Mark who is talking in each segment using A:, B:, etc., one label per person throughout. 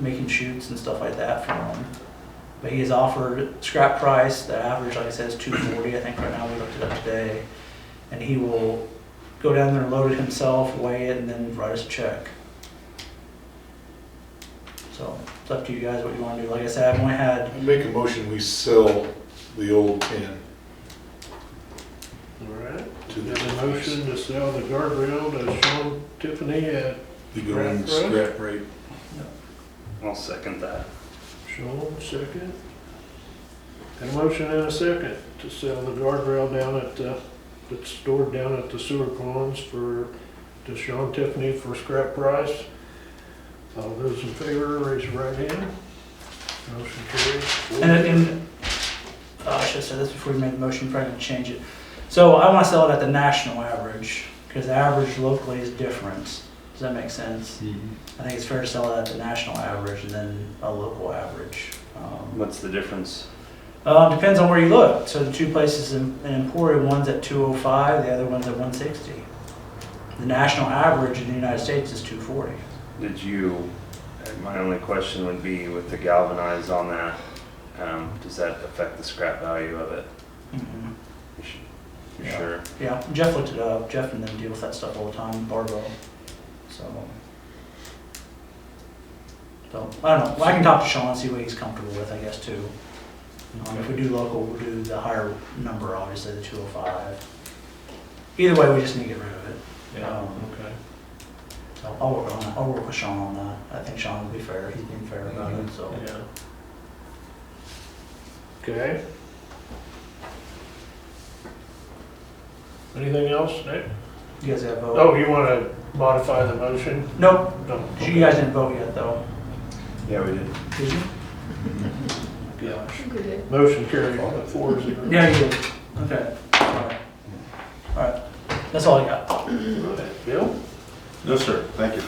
A: making shoots and stuff like that for him. But he has offered scrap price, the average, like I said, is two forty, I think right now, we looked it up today. And he will go down there and load it himself, weigh it, and then write us a check. So, it's up to you guys what you wanna do, like I said, I've only had
B: I Make a motion, we sell the old tin
C: All right,
B: to
C: we have
B: the
C: a motion to sell the guardrail to Sean Tiffany at
B: The going
C: Scrap
B: scrap rate.
D: I'll second that.
C: Sean, second. And a motion and a second to sell the guardrail down at, uh, that's stored down at the sewer ponds for, to Sean Tiffany for scrap price. All those in favor, raise your right hand. Motion carries.
A: And, and, oh, I should have said this before we made the motion, probably gonna change it. So I wanna sell it at the national average, cause the average locally is different. Does that make sense? I think it's fair to sell it at the national average and then a local average. Um,
D: What's the difference?
A: Uh, depends on where you look. So the two places in, in Emporia, one's at two oh five, the other one's at one sixty. The national average in the United States is two forty.
D: Did you, uh, my only question would be with the galvanized on that, um, does that affect the scrap value of it?
A: Mm-hmm.
D: You sh- you
A: Yeah.
D: sure?
A: Yeah, Jeff looked it up. Jeff and them deal with that stuff all the time, Barbell. So. So, I don't know. Well, I can talk to Sean and see what he's comfortable with, I guess, too. Um, if we do local, we'll do the higher number, obviously, the two oh five. Either way, we just need to get rid of it.
C: Yeah,
A: Um,
C: okay.
A: So I'll work on that. I'll work with Sean on that. I think Sean will be fair. He's been fair about it, so.
C: Yeah. Okay. Anything else, Nick?
A: You guys have a vote?
C: Oh, you want to modify the motion?
A: Nope,
C: No.
A: you guys didn't vote yet, though.
D: Yeah, we did.
A: Did you?
C: Gosh.
E: Good.
C: Motion carried, four zero.
A: Yeah, you did. Okay. All right. All right. That's all I got.
C: Right. Bill?
F: No, sir, thank you.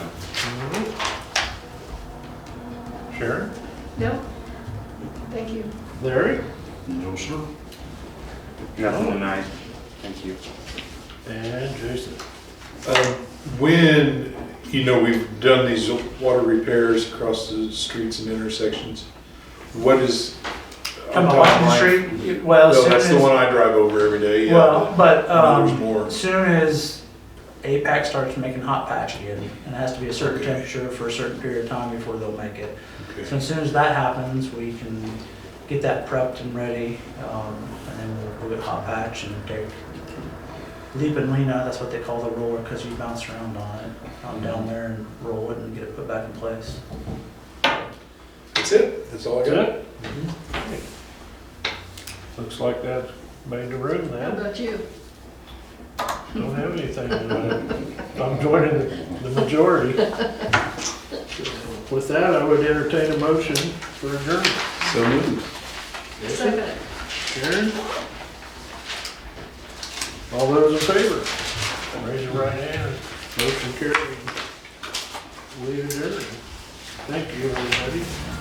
C: Sharon?
E: No? Thank you.
C: Larry?
F: No, sir.
D: Nothing tonight. Thank you.
C: And Jason.
B: Um, When, you know, we've done these water repairs across the streets and intersections, what is?
A: Come on,
B: I'm talking like-
A: Washington Street, well,
B: No,
A: soon
B: that's the
A: as,
B: one uh, I drive over every day,
A: well,
B: yeah.
A: but,
B: but There's
A: um,
B: more.
A: soon as APAC starts making hot patch again, and it has to be a certain temperature for a certain period of time before they'll make it. So
B: Okay.
A: as soon as that happens, we can get that prepped and ready, um, and then we'll- we'll get hot patch and take leap and lean out, that's what they call the roller, because you bounce around on it, um, down there and roll it and get it put back in place.
B: That's it, that's all I got.
C: Good? Looks like that made the room
E: How
C: then.
E: about you?
C: Don't have anything tonight. I'm joining the- the majority. With that, I would entertain a motion for adjournment.
F: So moved.
E: Second.
C: Sharon? All those in favor? Raise your right hand. Motion carried. We adjourn. Thank you, everybody.